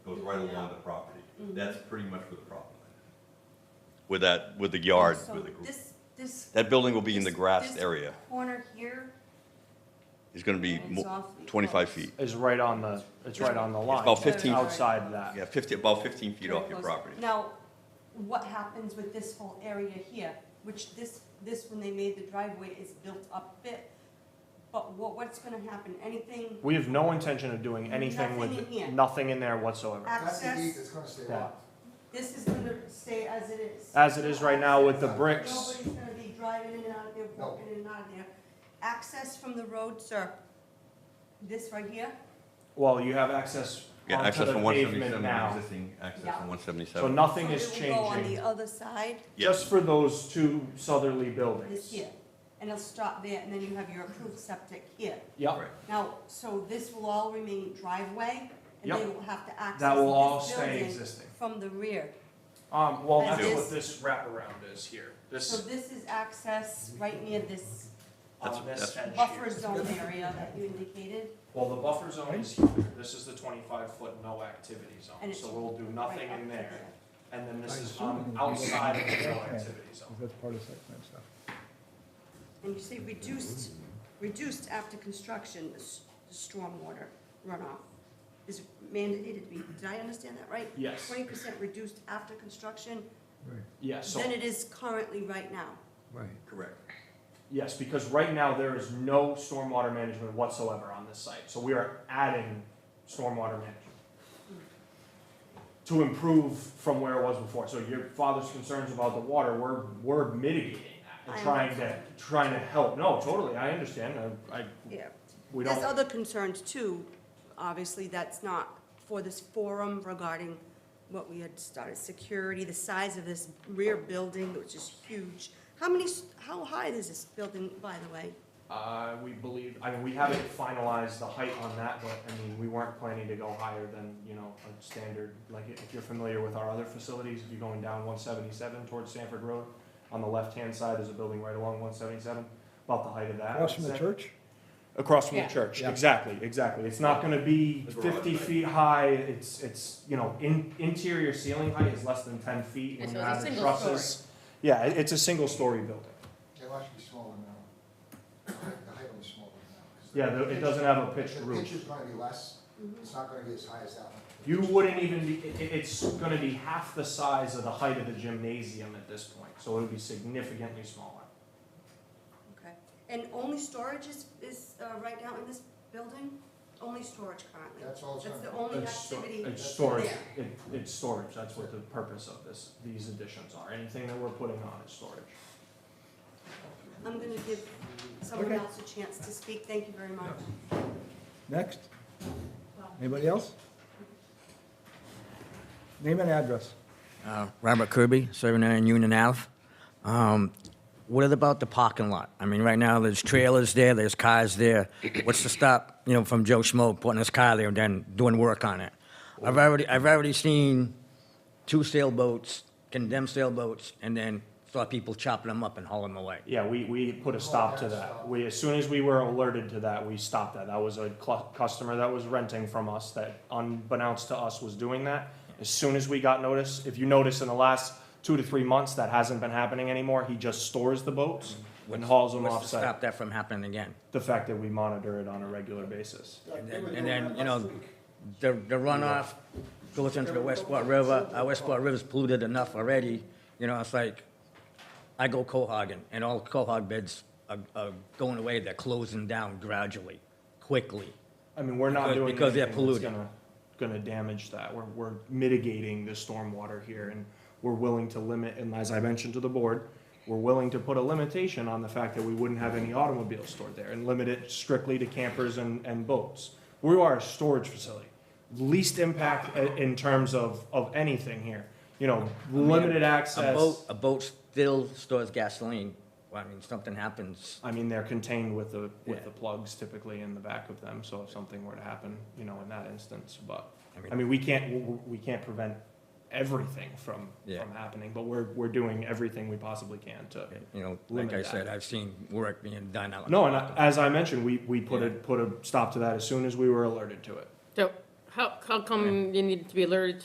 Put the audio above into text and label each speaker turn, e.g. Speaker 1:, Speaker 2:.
Speaker 1: right along
Speaker 2: Yeah.
Speaker 1: the property.
Speaker 2: Mhm.
Speaker 1: That's pretty much where the problem is. With that, with the yard, with the,
Speaker 2: So
Speaker 1: gr-
Speaker 2: This, this
Speaker 1: that building will be in the
Speaker 2: this-
Speaker 1: grassed
Speaker 2: this
Speaker 1: area.
Speaker 2: corner here
Speaker 1: It's gonna be mo-
Speaker 2: It's awfully
Speaker 1: twenty-five
Speaker 2: close.
Speaker 1: feet.
Speaker 3: is right on the, it's right on the line.
Speaker 1: about
Speaker 3: so
Speaker 1: 15
Speaker 3: Outside that.
Speaker 1: Yeah, fifty, about fifteen feet off your
Speaker 2: Very close.
Speaker 1: property.
Speaker 2: Now, what happens with this whole area here, which this, this, when they made the driveway, is built up bit, but what, what's gonna happen, anything
Speaker 3: We have no intention of doing anything with,
Speaker 2: Nothing in here.
Speaker 3: nothing in there whatsoever.
Speaker 4: That's the deed that's
Speaker 2: access,
Speaker 4: gonna stay
Speaker 3: Yeah.
Speaker 4: locked.
Speaker 2: this is gonna stay as it is.
Speaker 3: As it is right now with the bricks,
Speaker 2: Nobody's gonna be driving in and out of there,
Speaker 4: No.
Speaker 2: walking in and out of there. Access from the road, sir, this right here,
Speaker 3: well, you have access
Speaker 1: Yeah,
Speaker 3: onto
Speaker 1: access
Speaker 3: the
Speaker 1: from one
Speaker 3: pavement
Speaker 1: seventy-seven,
Speaker 3: now.
Speaker 1: existing access
Speaker 2: Yeah.
Speaker 1: from one
Speaker 3: So
Speaker 1: seventy-seven.
Speaker 3: nothing
Speaker 2: so
Speaker 3: is
Speaker 2: it will go on the
Speaker 3: changing,
Speaker 2: other side,
Speaker 3: just for those two southerly buildings.
Speaker 2: this here, and it'll stop there, and then you have your approved septic here.
Speaker 3: Yep,
Speaker 2: Now, so this will all remain driveway, and they
Speaker 3: Yep.
Speaker 2: will have to access
Speaker 3: that will all
Speaker 2: this
Speaker 3: stay
Speaker 2: building
Speaker 3: existing.
Speaker 2: from the rear.
Speaker 3: Um, well,
Speaker 2: As
Speaker 3: that's
Speaker 2: is.
Speaker 3: what this wraparound is here,
Speaker 2: So
Speaker 3: this,
Speaker 2: this is access right near this
Speaker 3: on
Speaker 1: That's-
Speaker 3: uh, this edge
Speaker 2: buffer
Speaker 3: here.
Speaker 2: zone area that you indicated,
Speaker 3: Well, the buffer zone is here, this is the twenty-five foot no activity
Speaker 2: And
Speaker 3: zone,
Speaker 2: it's
Speaker 3: so we'll do
Speaker 2: right up
Speaker 3: nothing
Speaker 2: to
Speaker 3: in there.
Speaker 2: there.
Speaker 3: And then this
Speaker 5: I
Speaker 3: is
Speaker 5: assume it
Speaker 3: on
Speaker 5: would be-
Speaker 3: outside of the no
Speaker 5: Okay.
Speaker 3: activity zone.
Speaker 5: That's part of site plan stuff.
Speaker 2: And you say reduced, reduced after construction, the s- the stormwater runoff is mandated to be, did I understand that right?
Speaker 3: Yes,
Speaker 2: Twenty percent reduced after construction
Speaker 5: Right,
Speaker 3: yes, so,
Speaker 2: than it is currently right now.
Speaker 5: right.
Speaker 1: Correct.
Speaker 3: yes, because right now there is no stormwater management whatsoever on this site, so we are adding stormwater management. To improve from where it was before, so your father's concerns about the water, we're, we're mitigating that,
Speaker 2: I
Speaker 3: and trying to, trying to help, no, totally, I understand, I, I,
Speaker 2: Yeah.
Speaker 3: we
Speaker 2: There's
Speaker 3: don't,
Speaker 2: other concerns too, obviously, that's not for this forum regarding what we had started, security, the size of this rear building, which is huge. How many, s- how high is this building, by the way?
Speaker 3: uh, we believe, I mean, we haven't finalized the height on that, but, I mean, we weren't planning to go higher than, you know, a standard, like, if you're familiar with our other facilities, if you're going down one seventy-seven towards Sanford Road, on the left-hand side, there's a building right along one seventy-seven, about the height of that.
Speaker 5: Across from the
Speaker 3: Is that-
Speaker 5: church?
Speaker 3: Across from the
Speaker 2: Yeah.
Speaker 3: church,
Speaker 5: Yeah.
Speaker 3: exactly, exactly, it's not gonna be
Speaker 1: The garage
Speaker 3: fifty
Speaker 1: height.
Speaker 3: feet high, it's, it's, you know, in, interior ceiling height is less than ten feet
Speaker 6: Yeah,
Speaker 3: when you
Speaker 6: so it's a
Speaker 3: add the
Speaker 6: single
Speaker 3: trusses. Yeah, it, it's a single-story building.
Speaker 4: It'll actually be smaller now. The height will be smaller now. 'cause the-
Speaker 3: Yeah, the- it doesn't have a pitched
Speaker 4: The
Speaker 3: roof.
Speaker 4: pitch is gonna be less, it's not gonna be as high as that one.
Speaker 3: You wouldn't even be, it, it- it's gonna be half the size of the height of the gymnasium at this point, so it'll be significantly smaller.
Speaker 2: Okay. And only storage is, is uh, right now in this building? Only storage currently?
Speaker 4: That's all it's
Speaker 2: That's
Speaker 4: gonna
Speaker 2: the
Speaker 4: be.
Speaker 2: only
Speaker 3: It's sto-
Speaker 2: activity?
Speaker 3: It's storage,
Speaker 2: there.
Speaker 3: it, it's storage, that's what the purpose of this, these additions are, anything that we're putting on is storage.
Speaker 2: I'm gonna give someone
Speaker 5: Okay.
Speaker 2: else a chance to speak, thank you very much.
Speaker 5: Next? Anybody else? Name and address.
Speaker 7: Uh, Robert Kirby, 79 Union Ave. Um, What is about the parking lot? I mean, right now, there's trailers there, there's cars there. What's to stop, you know, from Joe Schmo putting his car there and then doing work on it? I've already, I've already seen two sailboats, condemned sailboats, and then saw people chopping them up and hauling them away.
Speaker 3: Yeah, we, we put a stop to that. We, as soon as we were alerted to that, we stopped that. That was a cl- customer that was renting from us that unbeknownst to us was doing that. As soon as we got notice, if you notice in the last two to three months, that hasn't been happening anymore. He just stores the boats and hauls them off
Speaker 7: Mm-hmm. What's to
Speaker 3: site.
Speaker 7: stop that from happening again?
Speaker 3: The fact that we monitor it on a regular basis.
Speaker 7: And then- and then, you know, the, the runoff goes into the Westport River. Our Westport River's polluted enough already, you know, it's like, I go cohogging, and all cohog beds are, are going away, they're closing down gradually, quickly.
Speaker 3: I mean, we're not
Speaker 7: Because-
Speaker 3: doing
Speaker 7: because they're
Speaker 3: anything that's
Speaker 7: polluting.
Speaker 3: gonna, gonna damage that. We're, we're mitigating the stormwater here and we're willing to limit, and as I mentioned to the board, we're willing to put a limitation on the fact that we wouldn't have any automobiles stored there and limit it strictly to campers and, and boats. We are a storage facility. Least impact i- in terms of, of anything here. You know, limited
Speaker 7: A boat,
Speaker 3: access.
Speaker 7: a boat still stores gasoline, well, I mean, something happens,
Speaker 3: I mean, they're contained with the, with
Speaker 7: Yeah.
Speaker 3: the plugs typically in the back of them, so if something were to happen, you know, in that instance, but.
Speaker 7: I
Speaker 3: I
Speaker 7: mean,
Speaker 3: mean, we can't, w- w- we can't prevent everything from,
Speaker 7: Yeah.
Speaker 3: from happening, but we're, we're doing everything we possibly can to.
Speaker 7: you know, like I
Speaker 3: Limit that.
Speaker 7: said, I've seen work being done out.
Speaker 3: No, and I- as I mentioned, we, we put a,
Speaker 7: Yeah.
Speaker 3: put a stop to that as soon as we were alerted to it.
Speaker 6: So how, how come you needed to be alerted